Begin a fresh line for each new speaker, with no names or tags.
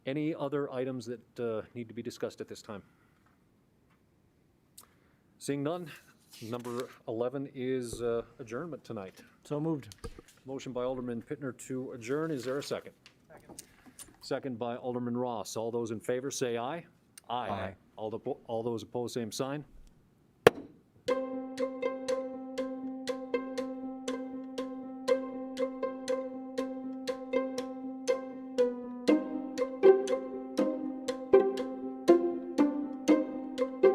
Any other items that uh, need to be discussed at this time? Seeing none, number 11 is uh, adjournment tonight.
So moved.
Motion by Alderman Pittner to adjourn, is there a second? Second by Alderman Ross. All those in favor, say aye.
Aye.
All the, all those opposed, same sign.